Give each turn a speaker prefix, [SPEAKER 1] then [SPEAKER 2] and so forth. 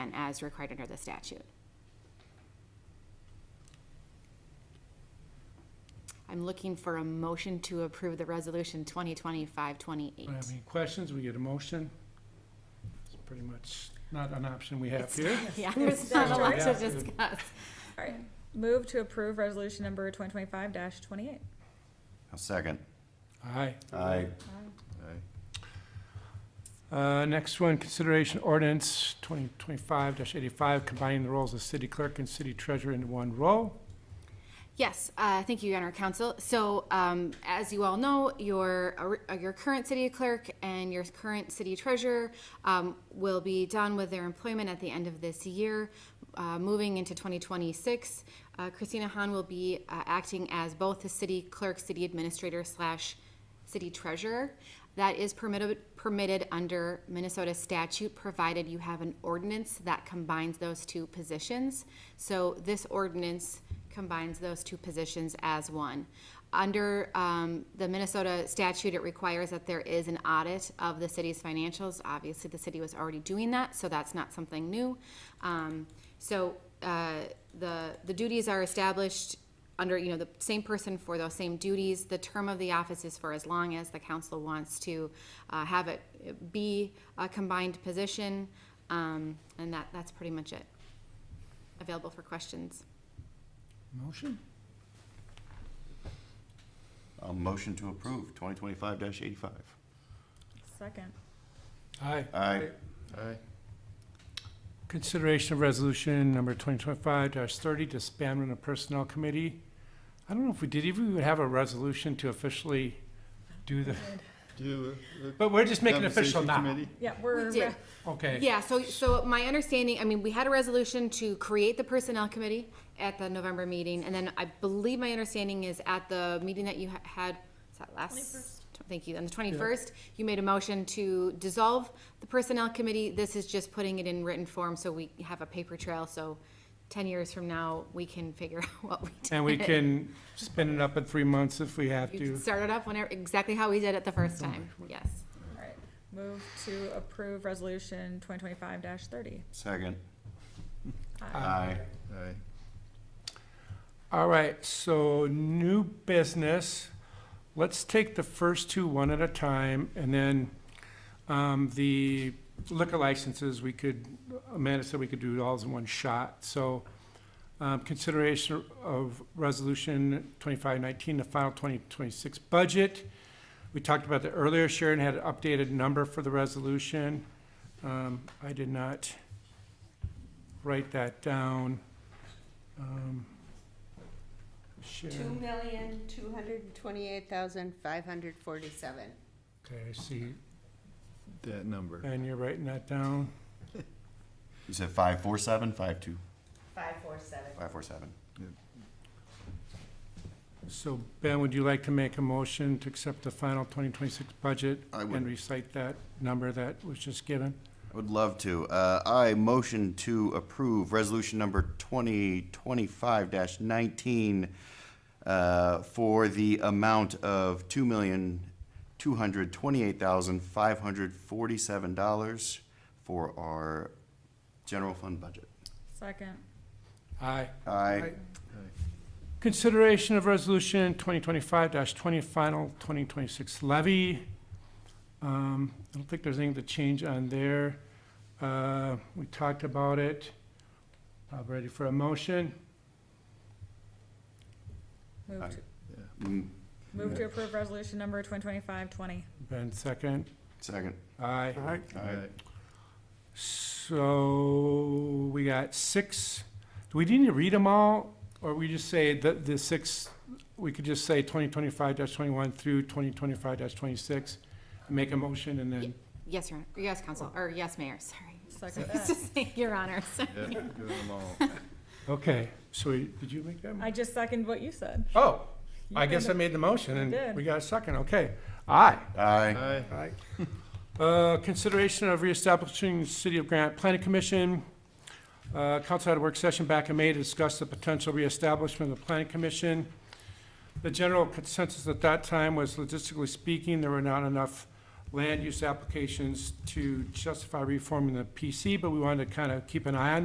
[SPEAKER 1] and as required under the statute. I'm looking for a motion to approve the resolution 2025-28.
[SPEAKER 2] Don't have any questions, we get a motion. It's pretty much not an option we have here.
[SPEAKER 1] Yeah, there's not a lot to
[SPEAKER 2] Yeah.
[SPEAKER 1] discuss.
[SPEAKER 3] All right. Move to approve resolution number twenty twenty-five twenty-eight.
[SPEAKER 4] I'll second.
[SPEAKER 2] Aye.
[SPEAKER 4] Aye.
[SPEAKER 2] Uh, next one, consideration ordinance twenty twenty-five eighty-five, combining the roles of city clerk and city treasurer into one role.
[SPEAKER 1] Yes, uh, thank you, Your Honor Council. So, um, as you all know, your, uh, your current city clerk and your current city treasurer um, will be done with their employment at the end of this year, uh, moving into 2026. Uh, Christina Hahn will be uh, acting as both the city clerk, city administrator slash city treasurer. That is permitted, permitted under Minnesota statute, provided you have an ordinance that combines those two positions. So this ordinance combines those two positions as one. Under um, the Minnesota statute, it requires that there is an audit of the city's financials. Obviously, the city was already doing that, so that's not something new. Um, So uh, the, the duties are established under, you know, the same person for those same duties. The term of the office is for as long as the council wants to uh, have it be a combined position. Um, And that, that's pretty much it. Available for questions.
[SPEAKER 2] Motion?
[SPEAKER 4] I'll motion to approve twenty twenty-five eighty-five.
[SPEAKER 3] Second.
[SPEAKER 2] Aye.
[SPEAKER 4] Aye. Aye.
[SPEAKER 2] Consideration of resolution number twenty twenty-five thirty, disbandment of personnel committee. I don't know if we did, if we would have a resolution to officially do the,
[SPEAKER 5] Do uh, the
[SPEAKER 2] but we're just making it official
[SPEAKER 5] compensation
[SPEAKER 2] now.
[SPEAKER 5] committee?
[SPEAKER 3] Yeah, we're.
[SPEAKER 1] We did.
[SPEAKER 2] Okay.
[SPEAKER 1] Yeah, so, so my understanding, I mean, we had a resolution to create the personnel committee at the November meeting, and then I believe my understanding is at the meeting that you ha- had, was that last? Thank you, on the twenty-first, you made a motion to dissolve the personnel committee, this is just putting it in written form, so we have a paper trail, so ten years from now, we can figure out what we did.
[SPEAKER 2] And we can spin it up in three months if we have
[SPEAKER 1] You can
[SPEAKER 2] to. Uh,
[SPEAKER 1] start it up whenever, exactly how we did it the first time, yes.
[SPEAKER 3] All right. Move to approve resolution twenty twenty-five thirty.
[SPEAKER 4] Second.
[SPEAKER 3] Aye.
[SPEAKER 4] Aye.
[SPEAKER 5] Aye.
[SPEAKER 2] All right, so new business. Let's take the first two one at a time, and then um, the liquor licenses, we could, Amanda said we could do it all in one shot. So um, consideration of Resolution 2519, the final 2026 budget. We talked about that earlier. Sharon had an updated number for the resolution. Um, I did not write that down. Um,
[SPEAKER 6] Two
[SPEAKER 2] Sharon,
[SPEAKER 6] million, two hundred and twenty-eight thousand, five hundred forty-seven.
[SPEAKER 2] okay, I see,
[SPEAKER 5] That number.
[SPEAKER 2] and you're writing that down.
[SPEAKER 4] You said five four seven, five two,
[SPEAKER 6] Five four seven.
[SPEAKER 4] five four seven.
[SPEAKER 2] So Ben, would you like to make a motion to accept the final 2026 budget?
[SPEAKER 4] I would.
[SPEAKER 2] And recite that number that was just given?
[SPEAKER 4] I would love to. Uh, I motion to approve resolution number twenty twenty-five nineteen uh, for the amount of two million, two hundred twenty-eight thousand, five hundred forty-seven dollars for our general fund budget.
[SPEAKER 3] Second.
[SPEAKER 2] Aye.
[SPEAKER 4] Aye.
[SPEAKER 2] Consideration of resolution 2025-20, final 2026 levy. Um, I don't think there's anything to change on there. Uh, We talked about it. I'm ready for a motion.
[SPEAKER 3] Move
[SPEAKER 4] Aye.
[SPEAKER 3] to,
[SPEAKER 4] Mm,
[SPEAKER 3] move to approve resolution number twenty twenty-five twenty.
[SPEAKER 2] Ben, second.
[SPEAKER 4] Second.
[SPEAKER 2] Aye. Aye.
[SPEAKER 4] Aye.
[SPEAKER 2] So we got six. Do we need to read them all? Or we just say that the six, we could just say twenty twenty-five twenty-one through twenty twenty-five twenty-six? Make a motion and then,
[SPEAKER 1] Yes, Your, Honor. yes, council, or yes, mayor, sorry.
[SPEAKER 3] Second
[SPEAKER 1] It's
[SPEAKER 3] that.
[SPEAKER 1] just saying, Your Honor, sorry.
[SPEAKER 5] Yeah, do them all.
[SPEAKER 2] okay, so we- did you make that? mo-
[SPEAKER 3] I just second what you said.
[SPEAKER 2] Oh,
[SPEAKER 3] You
[SPEAKER 2] I guess I
[SPEAKER 3] made
[SPEAKER 2] made the motion
[SPEAKER 3] You
[SPEAKER 2] and
[SPEAKER 3] did.
[SPEAKER 2] we got a second, okay. Aye.
[SPEAKER 4] Aye.
[SPEAKER 5] Aye.
[SPEAKER 2] Aye. Uh, consideration of reestablishing City of Grant Planning Commission. Uh, council had a work session back in May to discuss the potential reestablishment of the planning commission. The general consensus at that time was logistically speaking, there were not enough land use applications to justify reforming the PC, but we wanted to kind of keep an eye on